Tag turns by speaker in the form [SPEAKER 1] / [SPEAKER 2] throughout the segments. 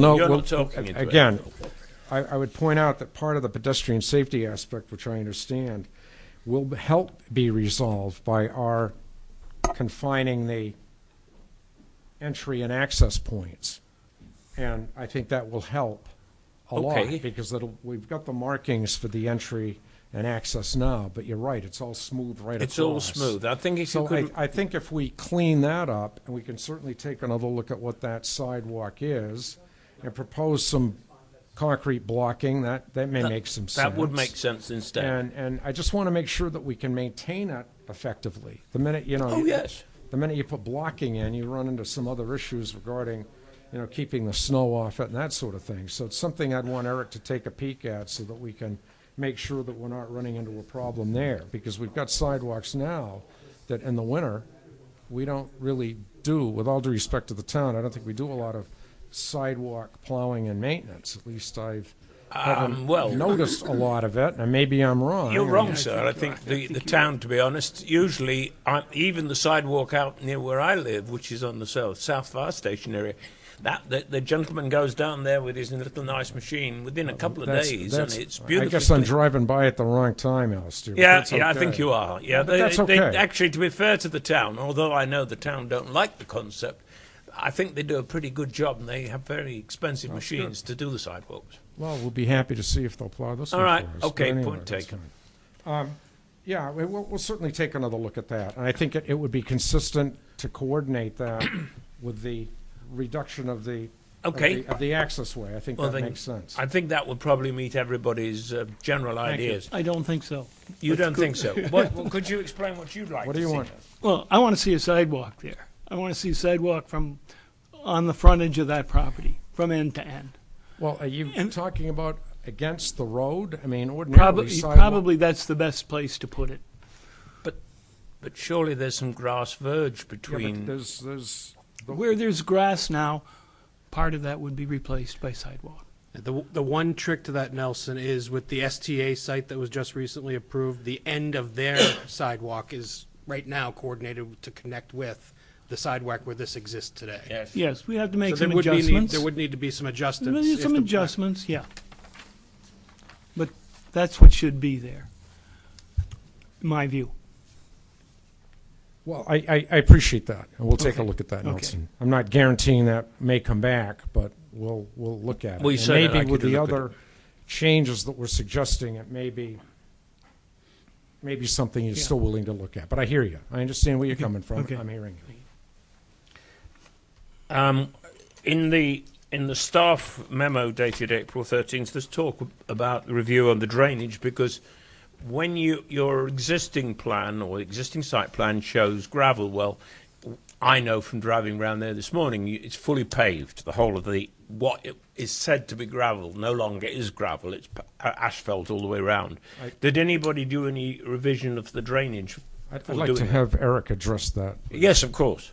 [SPEAKER 1] No,
[SPEAKER 2] You're
[SPEAKER 1] well,
[SPEAKER 2] not talking into it.
[SPEAKER 1] Again, I, I would point out that part of the pedestrian safety aspect, which I understand, will b- help be resolved by our confining the entry and access points. And I think that will help a
[SPEAKER 2] Okay.
[SPEAKER 1] lot, because it'll, we've got the markings for the entry and access now, but you're right, it's all smooth right across.
[SPEAKER 2] It's all smooth. I think if you
[SPEAKER 1] So I,
[SPEAKER 2] could,
[SPEAKER 1] I think if we clean that up, and we can certainly take another look at what that sidewalk is, and propose some concrete blocking, that, that may make some sense.
[SPEAKER 2] that would make sense instead.
[SPEAKER 1] And, and I just want to make sure that we can maintain it effectively. The minute, you know.
[SPEAKER 2] Oh,
[SPEAKER 1] you-
[SPEAKER 2] yes.
[SPEAKER 1] The minute you put blocking in, you run into some other issues regarding, you know, keeping the snow off it and that sort of thing. So it's something I'd want Eric to take a peek at so that we can make sure that we're not running into a problem there. Because we've got sidewalks now that in the winter, we don't really do, with all due respect to the town, I don't think we do a lot of sidewalk plowing and maintenance. At least I've
[SPEAKER 2] Um, well,
[SPEAKER 1] noticed a lot of it, and maybe I'm wrong.
[SPEAKER 2] You're
[SPEAKER 1] and-
[SPEAKER 2] wrong, sir. I think the, the town, to be honest, usually I, even the sidewalk out near where I live, which is on the south south fire station area, that the, the gentleman goes down there with his little nice machine within a couple of
[SPEAKER 1] Uh, That's-
[SPEAKER 2] days,
[SPEAKER 1] that's-
[SPEAKER 2] and it's beautiful.
[SPEAKER 1] I guess I'm driving by at the wrong time, Alistair. but
[SPEAKER 2] Yeah,
[SPEAKER 1] that's
[SPEAKER 2] yeah, I
[SPEAKER 1] okay.
[SPEAKER 2] think you are. Yeah,
[SPEAKER 1] But that's
[SPEAKER 2] they,
[SPEAKER 1] okay.
[SPEAKER 2] they, actually, to be fair to the town, although I know the town don't like the concept, I think they do a pretty good job, and they have very expensive machines to do the sidewalks.
[SPEAKER 1] Well, we'll be happy to see if they'll plow this
[SPEAKER 2] All
[SPEAKER 1] one
[SPEAKER 2] right,
[SPEAKER 1] for us, but
[SPEAKER 2] okay,
[SPEAKER 1] anyway,
[SPEAKER 2] point
[SPEAKER 1] that's
[SPEAKER 2] taken.
[SPEAKER 1] fine. Um, Yeah, we- we'll, we'll certainly take another look at that, and I think it, it would be consistent to coordinate that with the reduction of the of
[SPEAKER 2] Okay.
[SPEAKER 1] the- of the access way. I think
[SPEAKER 2] Well,
[SPEAKER 1] that
[SPEAKER 2] then,
[SPEAKER 1] makes sense.
[SPEAKER 2] I think that would probably meet everybody's uh, general
[SPEAKER 1] Thank you.
[SPEAKER 2] ideas.
[SPEAKER 3] I don't think so.
[SPEAKER 2] You don't think so? What, well, could you explain what you'd like?
[SPEAKER 1] What
[SPEAKER 2] to
[SPEAKER 1] do you
[SPEAKER 2] see?
[SPEAKER 1] want?
[SPEAKER 3] Well, I want to see a sidewalk there. I want to see a sidewalk from, on the front edge of that property, from end to end.
[SPEAKER 1] Well, are you
[SPEAKER 3] And-
[SPEAKER 1] talking about against the road? I mean, ordinarily
[SPEAKER 3] Probably,
[SPEAKER 1] sidewalk.
[SPEAKER 3] probably that's the best place to put it.
[SPEAKER 2] But surely there's some grass verge
[SPEAKER 1] Yeah, but
[SPEAKER 2] between.
[SPEAKER 1] There's, there's, the-
[SPEAKER 3] Where there's grass now, part of that would be replaced by sidewalk.
[SPEAKER 4] The, the one trick to that, Nelson, is with the STA site that was just recently approved, the end of their sidewalk is right now coordinated to connect with the sidewalk where this exists today.
[SPEAKER 2] yes.
[SPEAKER 3] Yes, we have to
[SPEAKER 4] So
[SPEAKER 3] make
[SPEAKER 4] there
[SPEAKER 3] some
[SPEAKER 4] would be, need-
[SPEAKER 3] adjustments.
[SPEAKER 4] there would need to be some adjustments.
[SPEAKER 3] Well, there's
[SPEAKER 4] if
[SPEAKER 3] Some
[SPEAKER 4] the-
[SPEAKER 3] adjustments, yeah. But that's what should be there, in my view.
[SPEAKER 1] Well, I, I, I appreciate that, and we'll take a
[SPEAKER 3] Okay.
[SPEAKER 1] look at that,
[SPEAKER 3] Okay.
[SPEAKER 1] Nelson. I'm not guaranteeing that may come back, but we'll, we'll look at it.
[SPEAKER 2] Well, you
[SPEAKER 1] And
[SPEAKER 2] said that, I
[SPEAKER 1] Maybe with
[SPEAKER 2] could
[SPEAKER 1] the
[SPEAKER 2] look at
[SPEAKER 1] other changes that we're suggesting, it may be, maybe something you're
[SPEAKER 3] Yeah.
[SPEAKER 1] still willing to look at. But I hear you. I understand where you're coming from.
[SPEAKER 3] okay.
[SPEAKER 1] I'm hearing you.
[SPEAKER 2] Um, in the in the staff memo dated April 13th, there's talk about the review on the drainage because when you your existing plan or existing site plan shows gravel, well, I know from driving around there this morning, you- it's fully paved. The whole of the what it is said to be gravel no longer is gravel; it's p- a- asphalt all the way around.
[SPEAKER 1] I-
[SPEAKER 2] Did anybody do any revision of the drainage?
[SPEAKER 1] I'd,
[SPEAKER 2] We'll
[SPEAKER 1] I'd like to
[SPEAKER 2] do it.
[SPEAKER 1] have Eric address that.
[SPEAKER 2] Yes, of course.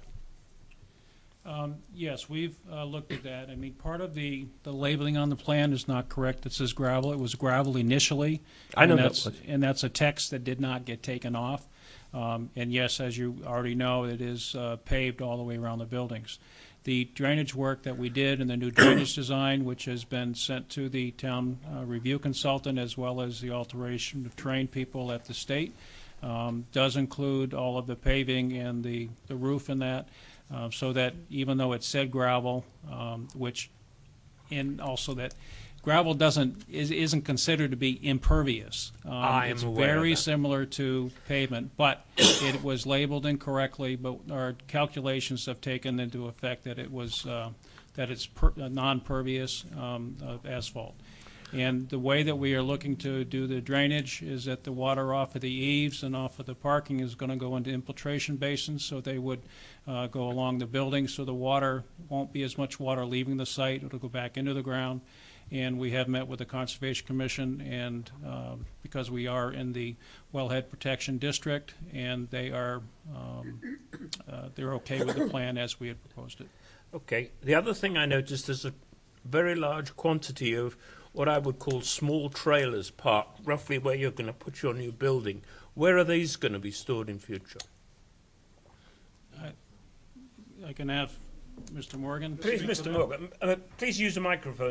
[SPEAKER 5] Um, Yes, we've uh, looked at that. I mean, part of the, the labeling on the plan is not correct. It says gravel. It was gravel initially.
[SPEAKER 2] I know
[SPEAKER 5] and
[SPEAKER 2] that
[SPEAKER 5] that's-
[SPEAKER 2] was.
[SPEAKER 5] And that's a text that did not get taken off. Um, And yes, as you already know, it is uh, paved all the way around the buildings. The drainage work that we did and the new drainage design, which has been sent to the town uh, review consultant, as well as the alteration of trained people at the state, um, does include all of the paving and the, the roof and that, uh, so that even though it said gravel, um, which, and also that gravel doesn't, is, isn't considered to be impervious. Um,
[SPEAKER 2] I am aware
[SPEAKER 5] It's
[SPEAKER 2] of
[SPEAKER 5] very
[SPEAKER 2] that.
[SPEAKER 5] similar to pavement, but it was labeled incorrectly, but our calculations have taken into effect that it was, uh, that it's per- uh, non-pervious um, of asphalt. And the way that we are looking to do the drainage is that the water off of the eaves and off of the parking is going to go into infiltration basins, so they would uh, go along the building, so the water, won't be as much water leaving the site, it'll go back into the ground. And we have met with the Conservation Commission, and um, because we are in the wellhead protection district, and they are, um, uh, they're okay with the plan as we had proposed it.
[SPEAKER 2] Okay. The other thing I noticed is a very large quantity of what I would call small trailers parked roughly where you're going to put your new building. Where are these going to be stored in future?
[SPEAKER 5] I can have Mr. Morgan?
[SPEAKER 2] Please, Mr. Morgan, uh, please use the microphone.